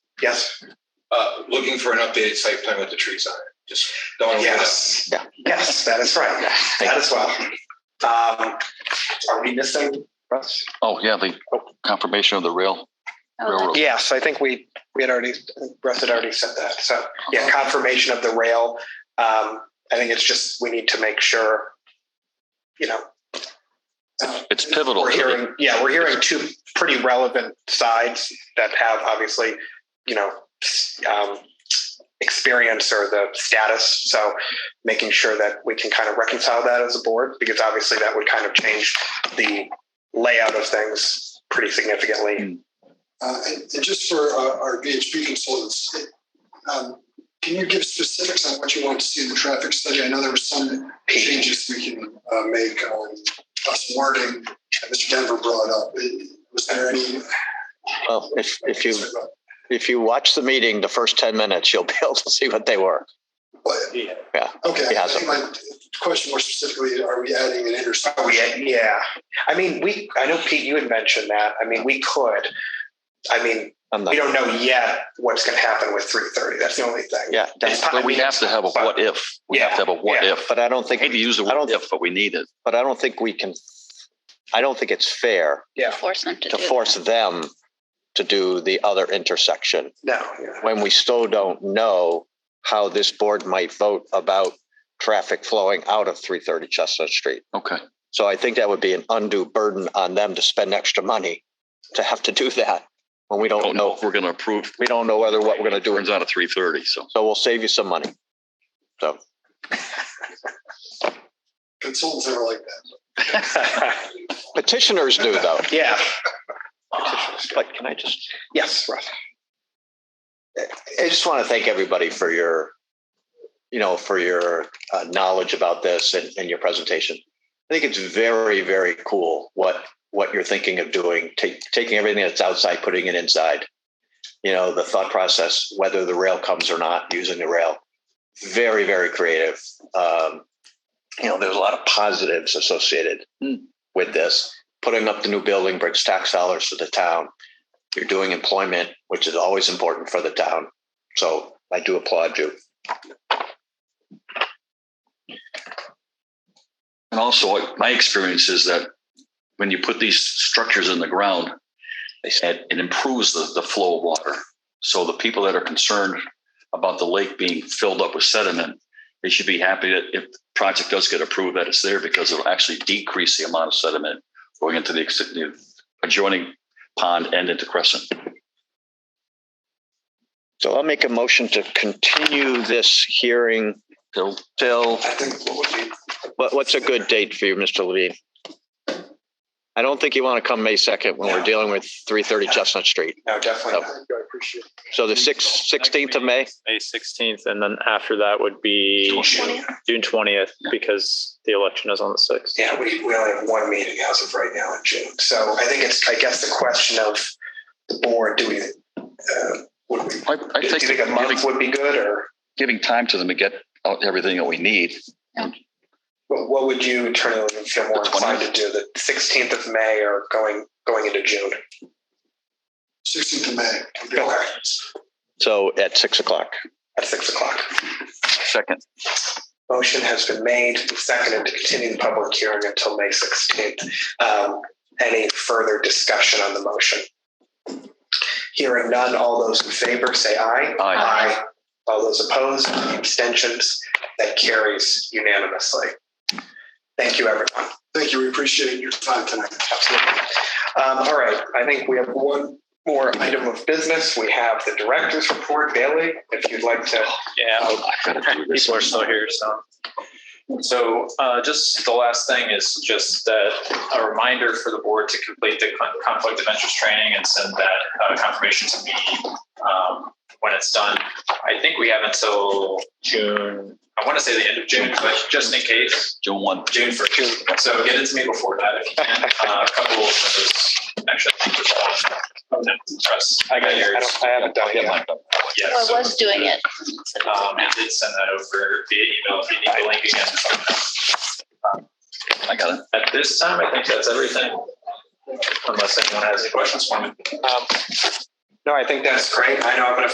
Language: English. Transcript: Yes, Uh, looking for an updated site plan with the trees on it. Just don't. Oh, wanna wait up. yes, yes, that is right. That as well. Um, are we missing? Russ? Oh, yeah, the confirmation of the rail, Oh, railroad. Yes, I think we, we had already, Russ had already said that. So, yeah, confirmation of the rail. Um, I think it's just, we need to make sure, you know. uh, It's pivotal. We're to the- hearing, yeah, we're hearing two pretty relevant sides that have obviously, you know, s- um, experience or the status. So making sure that we can kind of reconcile that as a board, because obviously that would kind of change the layout of things pretty significantly. Uh, And and just for uh, our VHB consultants, um, can you give specifics on what you want to see in the traffic study? I know there were some changes we can uh, make on uh, some wording that Mr. Denver brought up. Was there any? Well, if, if you, if you watch the meeting, the first 10 minutes, you'll be able to see what they were. But- Yeah. Okay, He I has think my question more specifically, are we adding an intersection? Oh, yeah, yeah. I mean, we, I know Pete, you had mentioned that. I mean, we could, I mean, I'm we don't not, know yet what's going to happen with 330. That's the only thing. yeah, that's- But we have to have a what if. We have to have a what Yeah. if. but I don't I hate think, to use the I word don't- if, but we need it. but I don't think we can, I don't think it's fair Force them to do to that. force them to do the other intersection No, yeah. when we still don't know how this board might vote about traffic flowing out of 330 Chestnut Street. Okay. So I think that would be an undue burden on them to spend extra money to have to do that when we don't Don't know know, if we're going to approve. we don't know whether what we're going to do. Turns out at three thirty, so. So we'll save you some money. Consultants are like that. Petitioners do though. yeah. But can I just, Yes, Russ. I just want to thank everybody for your, you know, for your uh, knowledge about this and, and your presentation. I think it's very, very cool what what you're thinking of doing, take, taking everything that's outside, putting it inside. You know, the thought process, whether the rail comes or not, using the rail. Very, very creative. Um, you know, there's a lot of positives associated Hmm. with this. Putting up the new building brings tax dollars to the town. You're doing employment, which is always important for the town. So I do applaud you. And also, my experience is that when you put these structures in the ground, they said it improves the, the flow of water. So the people that are concerned about the lake being filled up with sediment, they should be happy that if the project does get approved, that it's there because it'll actually decrease the amount of sediment going into the ex- the adjoining pond and into Crescent. So I'll make a motion to continue this hearing Till till, I think what would be, what, what's a good date for you, Mr. Levine? I don't think you want to come May 2nd when we're No. dealing with 330 Chestnut Street. No, Oh. definitely. I appreciate it. So the 6th, 16th of May? May sixteenth, and then after that would be June twentieth, because the election is on the sixth. Yeah, we, we only have one meeting as of right now in June. So I think it's, I guess the question of the board, do we, uh, would we, I, I do you think think a giving, month would be good or giving time to them to get out everything that we need. what what would you internally feel more The inclined to do? The 16th of May or going, going into June? 16th of May. would be- Okay, So at 6 o'clock. at six o'clock. Second. Motion has been made, and seconded to continue the public hearing until May 16th. Um, Any further discussion on the motion? Hearing none, all those in favor say aye. Aye. All those opposed, any abstentions, that carries unanimously. Thank you, everyone. Thank you. We appreciate your time tonight. Absolutely. Um, All right, I think we have one more item of business. We have the director's report. Bailey, if you'd like to. Yeah, I've got to do this. people are still here, so. So uh, just the last thing is just that a reminder for the board to complete the con- conflict of interest training and send that uh, confirmation to me um, when it's done. I think we have until June, I want to say the end of June, but just in case, June one. June first. So get it to me before that if you can. Uh, A couple of those, actually, I think there's one. Oh, Press. I got I yours. don't- I haven't done it yet. Yeah, Or so- was doing it. So it's um, I not. did send that over via email if you need the link again. I got it. At this time, I think that's everything. Unless anyone has any questions for me. Um, No, I think that's great. I know I'm going to